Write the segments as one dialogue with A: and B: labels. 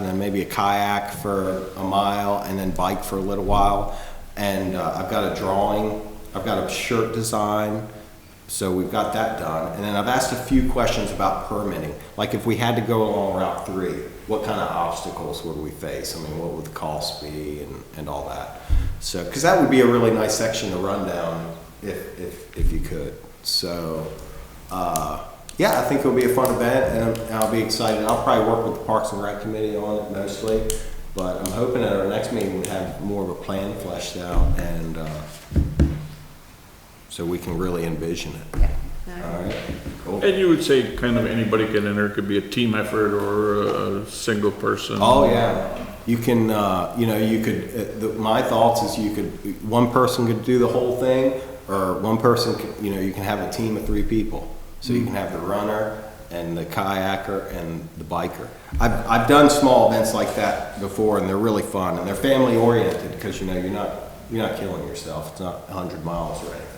A: and then maybe a kayak for a mile, and then bike for a little while. And uh, I've got a drawing, I've got a shirt design, so we've got that done. And then I've asked a few questions about permitting, like if we had to go along Route 3, what kind of obstacles would we face? I mean, what would the cost be and, and all that? So, because that would be a really nice section to run down if, if, if you could. So, uh, yeah, I think it'll be a fun event and I'm- I'll be excited. I'll probably work with the Parks and Rec Committee on it mostly. But I'm hoping at our next meeting we have more of a plan fleshed out and, uh, so we can really envision it.
B: Yeah.
A: All right, cool.
C: And you would say kind of anybody can enter, it could be a team effort or a single person.
A: Oh yeah, you can. Uh, you know, you could. Uh, the, my thoughts is you could. One person could do the whole thing, or one person. Could, you know, you can have a team of three people. So you can have the runner and the kayaker and the biker. I've I've done small events like that before, and they're really fun and they're family oriented because you know you're not you're not killing yourself. It's not 100 miles or anything.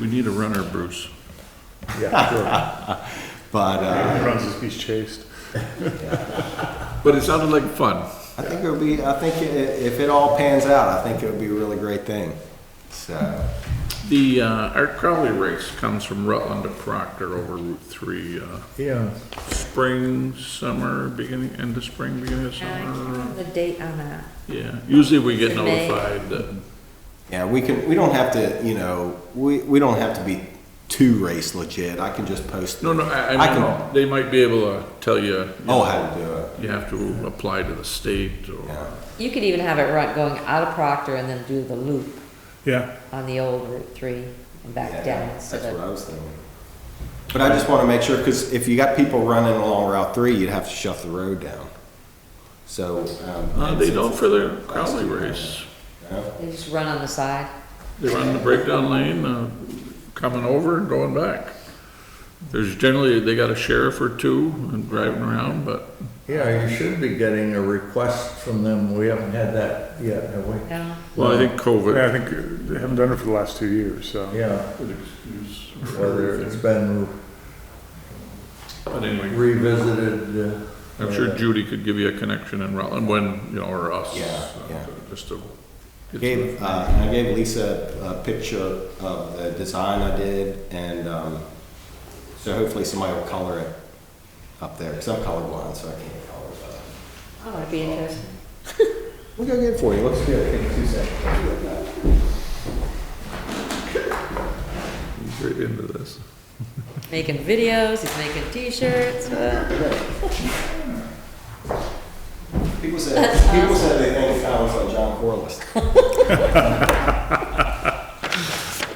C: We need a runner, Bruce.
D: Yeah,
A: But uh,
D: sure. Runs his, he's chased.
C: But it sounded like fun.
A: I think it'll be. I think i if it all pans out, I think it'll be a really great thing. So.
C: The, uh, Art Crowley race comes from Rutland to Proctor over Route Three, uh,
D: Yeah.
C: spring, summer, beginning, end of spring, beginning of
B: Uh, I can't
C: summer.
B: remember the date on that.
C: Yeah, usually we get
B: In May.
C: notified that
A: Yeah, we can, we don't have to, you know, we, we don't have to be too race legit. I can just post.
C: No, no, I,
A: I
C: I mean,
A: can-
C: they might be able to tell you. you
A: Oh,
C: know,
A: how to do it.
C: You have to apply to the state or,
A: Yeah.
B: You could even have it run, going out of Proctor and then do the loop
D: Yeah,
B: on the old Route Three and
A: Yeah,
B: back down, so
A: That's what I
B: that,
A: was thinking. But I just want to make sure, because if you got people running along Route Three, you'd have to shut the road down. So. um,
C: Uh,
A: and
C: they
A: since
C: don't
A: it's-
C: for the Crowley race.
A: Yeah.
B: they just run on the side.
C: They run the breakdown lane, uh, coming over and going back. There's generally, they got a sheriff or two and driving around, but
E: Yeah, you should be getting a request from them. We haven't had that yet, have we?
B: No,
C: Well, I think
D: yeah, I
C: COVID.
D: think they haven't done it for the last two years, so.
E: Yeah,
C: would excuse
E: whether it's
C: everything.
E: been
C: But anyway,
E: revisited. uh,
C: I'm sure Judy could give you a connection in Rutland when, you know, or us.
A: Yeah,
C: uh,
A: yeah.
C: Just to. get some-
A: Gave, uh, I gave Lisa a picture of the design I did, and, um, so hopefully somebody will color it up there, because I'm colorblind, so I can't color, but.
B: oh, it'd be interesting.
A: We'll go get it for you. Let's do it. Give me two seconds.
C: He's right into this.
B: Making videos, he's making t-shirts, uh,
A: People said, people said they think it sounds like John Corliss.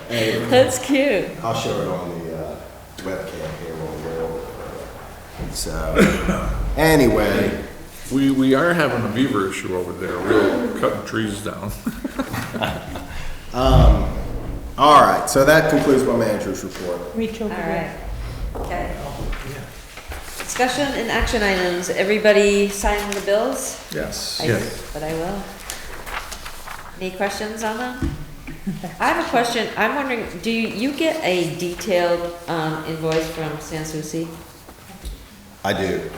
A: Hey,
B: that's cute.
A: I'll show it on the uh, webcam here when we're over. So, anyway,
C: We, we are having a beaver issue over there, we're cutting trees down.
A: all right, so that concludes my manager's report.
B: All right. Okay. Discussion and action items. Everybody signing the bills?
D: Yes.
B: I-
E: Yes.
B: But I will. Any questions on them? I have a question. I'm wondering, do you get a detailed um, invoice from Sans Souci?
A: I do.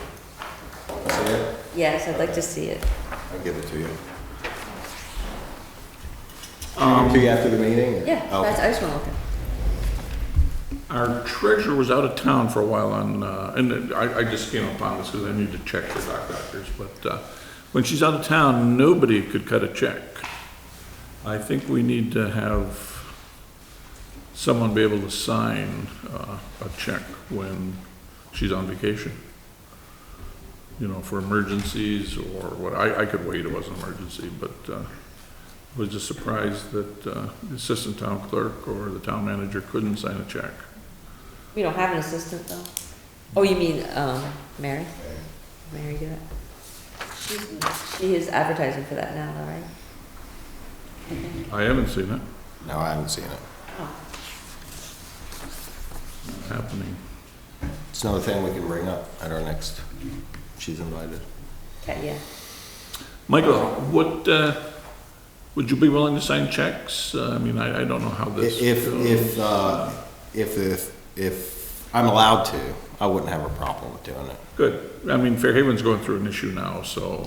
A: See it?
B: Yes, I'd like to see it.
A: I'll give it to you. To you after the meeting? or-
B: Um, Yeah, that's,
A: Oh, Okay.
B: I just want to look at
C: Our treasurer was out of town for a while on, uh, and I, I just came upon this because I need to check for doc doctors, but, uh, when she's out of town, nobody could cut a check. I think we need to have someone be able to sign, uh, a check when she's on vacation. You know, for emergencies or what, I, I could wait, it wasn't an emergency, but, uh, was just surprised that, uh, the assistant town clerk or the town manager couldn't sign a check.
B: We don't have an assistant, though. Oh, you mean, um, Mary? Mary do it? She's- She is advertising for that now, though, right?
C: I haven't seen it
A: No, I haven't seen it.
B: Oh,
C: happening.
A: It's another thing we can bring up at our next, she's invited.
B: Okay, Yeah.
C: Michael, what, uh, would you be willing to sign checks? Uh, I mean, I, I don't know how this.
A: If,
C: goes.
A: if, uh, if, if, if I'm allowed to, I wouldn't have a problem with doing it.
C: Good. I mean, Fairhaven's going through an issue now, so